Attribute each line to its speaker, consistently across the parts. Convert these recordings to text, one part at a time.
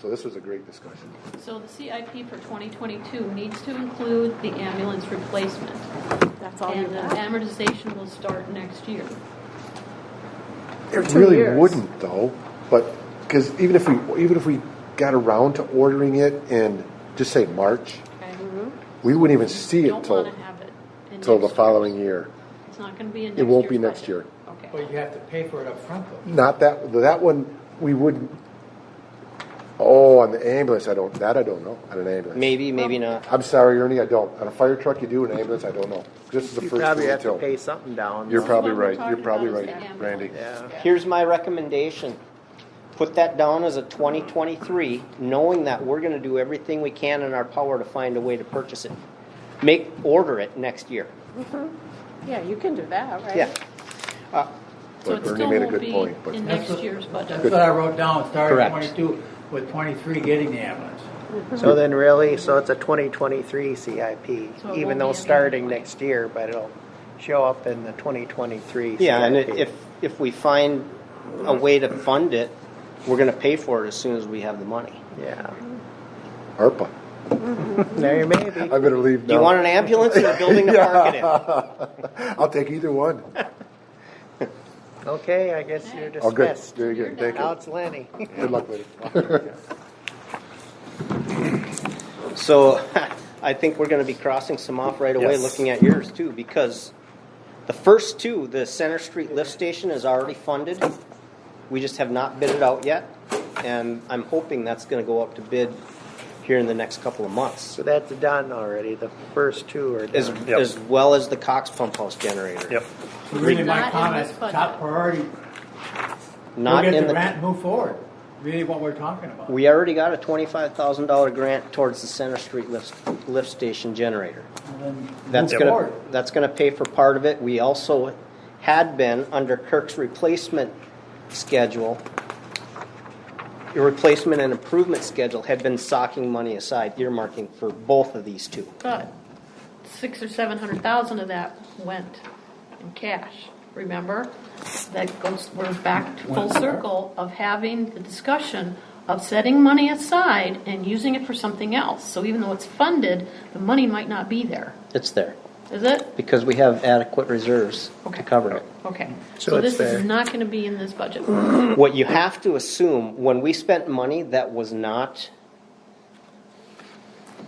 Speaker 1: So this was a great discussion.
Speaker 2: So the CIP for 2022 needs to include the ambulance replacement.
Speaker 3: That's all you
Speaker 2: And uh, the
Speaker 3: got.
Speaker 2: amortization will start next year.
Speaker 3: They're
Speaker 1: It
Speaker 3: two
Speaker 1: really
Speaker 3: years.
Speaker 1: wouldn't though, but because even if we even if we got around to ordering it in just say March,
Speaker 2: Okay?
Speaker 1: we wouldn't even see it
Speaker 2: Don't
Speaker 1: till
Speaker 2: want to have it. in
Speaker 1: till the
Speaker 2: next year.
Speaker 1: following year.
Speaker 2: It's not going to be in next
Speaker 1: It
Speaker 2: year's
Speaker 1: won't be next
Speaker 2: budget.
Speaker 1: year.
Speaker 2: Okay.
Speaker 4: But you have to pay for it up front, though.
Speaker 1: Not that that one we wouldn't. Oh, on the ambulance, I don't. That I don't know. On an ambulance,
Speaker 5: Maybe, maybe not.
Speaker 1: I'm sorry, Ernie, I don't. On a fire truck, you do. An ambulance, I don't know. This is the
Speaker 5: You
Speaker 1: first
Speaker 5: probably
Speaker 1: thing
Speaker 5: have to
Speaker 1: tell me.
Speaker 5: pay something down.
Speaker 1: You're
Speaker 5: though.
Speaker 1: probably
Speaker 2: What we're
Speaker 1: right. You're
Speaker 2: talking
Speaker 1: probably
Speaker 2: about is
Speaker 1: right,
Speaker 2: the ambulance.
Speaker 1: Randy.
Speaker 5: Yeah. Here's my recommendation. Put that down as a 2023, knowing that we're gonna do everything we can in our power to find a way to purchase it. Make, order it next year.
Speaker 3: Yeah, you can do that, right?
Speaker 5: Yeah.
Speaker 2: So
Speaker 1: But
Speaker 2: it
Speaker 1: Ernie
Speaker 2: still
Speaker 1: made a
Speaker 2: won't
Speaker 1: good point,
Speaker 2: be
Speaker 1: but-
Speaker 2: in
Speaker 4: That's
Speaker 2: next
Speaker 4: what-
Speaker 2: year's
Speaker 4: That's
Speaker 2: budget.
Speaker 4: what I wrote down, starting at
Speaker 5: Correct.
Speaker 4: 22, with 23 getting the ambulance.
Speaker 5: So then really, so it's a 2023 CIP,
Speaker 2: So it won't be
Speaker 6: even though
Speaker 2: in
Speaker 6: starting
Speaker 2: January.
Speaker 6: next year, but it'll show up in the 2023.
Speaker 5: Yeah, and
Speaker 6: CIP.
Speaker 5: if, if we find a way to fund it, we're gonna pay for it as soon as we have the money.
Speaker 6: Yeah,
Speaker 1: ARPA.
Speaker 6: there may be.
Speaker 1: I better leave now.
Speaker 5: Do you want an ambulance or a building to park it in?
Speaker 1: I'll take either one.
Speaker 6: Okay, I guess you're
Speaker 1: Oh, good.
Speaker 6: dismissed.
Speaker 1: Very good. Thank
Speaker 6: Now
Speaker 1: you.
Speaker 6: it's Lenny.
Speaker 1: Good luck later.
Speaker 5: So I think we're going to be crossing some off right away,
Speaker 1: Yes.
Speaker 5: looking at yours too, because the first two, the Center Street lift station is already funded. We just have not bid it out yet, and I'm hoping that's going to go up to bid here in the next couple of months,
Speaker 6: So that's done already. The first two are
Speaker 5: as,
Speaker 6: done.
Speaker 5: as well as the Cox Pump House generator.
Speaker 6: Yep.
Speaker 4: So Really,
Speaker 2: It's not
Speaker 4: my
Speaker 2: in
Speaker 4: comment,
Speaker 2: this budget.
Speaker 4: top priority, go
Speaker 5: Not
Speaker 4: get
Speaker 5: in
Speaker 4: the grant,
Speaker 5: the,
Speaker 4: move forward. Really what we're talking about.
Speaker 5: we already got a twenty-five thousand dollar grant towards the Center Street lift, lift station generator.
Speaker 4: And then
Speaker 5: That's
Speaker 4: move
Speaker 5: gonna,
Speaker 4: forward.
Speaker 5: that's gonna pay for part of it. We also had been, under Kirk's replacement schedule, your replacement and improvement schedule had been socking money aside, earmarking for both of these two.
Speaker 2: But six or 700,000 of that went in cash, remember? That goes, we're back to full
Speaker 4: Went where?
Speaker 2: circle of having the discussion of setting money aside and using it for something else. So even though it's funded, the money might not be there,
Speaker 5: It's there,
Speaker 2: is it?
Speaker 5: because we have adequate reserves
Speaker 2: Okay.
Speaker 5: to cover it.
Speaker 2: Okay.
Speaker 6: So
Speaker 2: So
Speaker 6: it's
Speaker 2: this is
Speaker 6: there.
Speaker 2: not going to be in this budget.
Speaker 5: What you have to assume, when we spent money that was not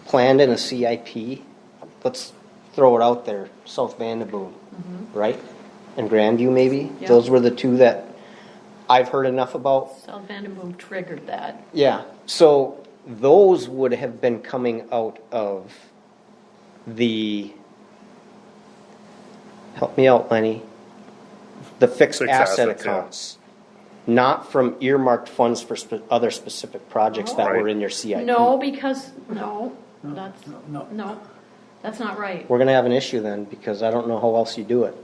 Speaker 5: planned in a CIP, let's throw it out there, South Vandaboom, right? And Grandview maybe?
Speaker 2: Yeah.
Speaker 5: Those were the two that I've heard enough about.
Speaker 2: South Vandenboom triggered that.
Speaker 5: Yeah, so those would have been coming out of the, help me out, Lenny, the fixed
Speaker 7: Fixed
Speaker 5: asset
Speaker 7: assets, yeah.
Speaker 5: accounts. Not from earmarked funds for spe- other specific projects that were
Speaker 7: Right.
Speaker 5: in your CIP.
Speaker 2: No, because, no, that's,
Speaker 4: no.
Speaker 2: no, that's not right.
Speaker 5: We're gonna have an issue then, because I don't know how else you do it.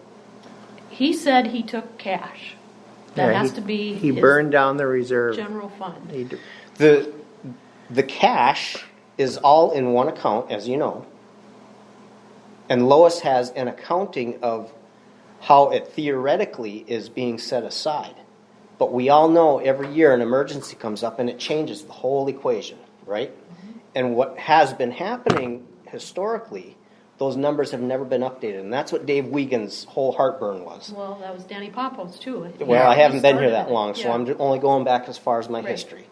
Speaker 2: He said he took cash. That
Speaker 6: Yeah,
Speaker 2: has
Speaker 6: he-
Speaker 2: to be.
Speaker 6: He
Speaker 2: his
Speaker 6: burned down the reserve.
Speaker 2: General fund.
Speaker 6: He d-
Speaker 5: The, the cash is all in one account, as you know. And Lois has an accounting of how it theoretically is being set aside. But we all know every year an emergency comes up and it changes the whole equation, right? And what has been happening historically, those numbers have never been updated. And that's what Dave Wiegand's whole heartburn was.
Speaker 2: Well, that was Danny Popo's too.
Speaker 5: Well, I haven't been here that
Speaker 2: Started it.
Speaker 5: long, so
Speaker 2: Yeah.
Speaker 5: I'm ju- only going back as far as my
Speaker 2: Right.
Speaker 5: history.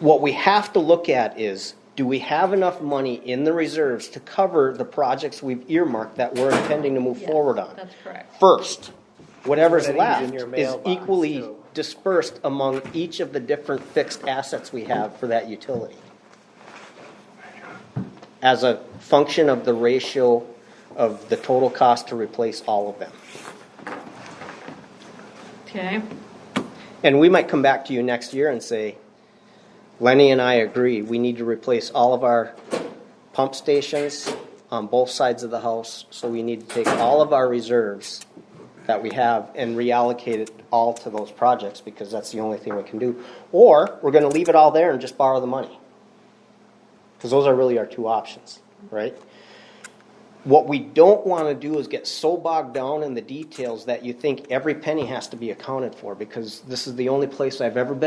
Speaker 5: What we have to look at is, do we have enough money in the reserves to cover the projects we've earmarked that we're intending to move
Speaker 2: Yes,
Speaker 5: forward on?
Speaker 2: That's correct.
Speaker 5: First, whatever's
Speaker 6: Put that in
Speaker 5: left
Speaker 6: your
Speaker 5: is
Speaker 6: mailbox,
Speaker 5: equally
Speaker 6: too.
Speaker 5: dispersed among each of the different fixed assets we have for that utility. As a function of the ratio of the total cost to replace all of them.
Speaker 2: Okay,
Speaker 5: And we might come back to you next year and say, Lenny and I agree, we need to replace all of our pump stations on both sides of the house, so we need to take all of our reserves that we have and reallocate it all to those projects, because that's the only thing we can do. Or, we're gonna leave it all there and just borrow the money. Because those are really our two options, right? What we don't want to do is get so bogged down in the details that you think every penny has to be accounted for, because this is the only place I've ever been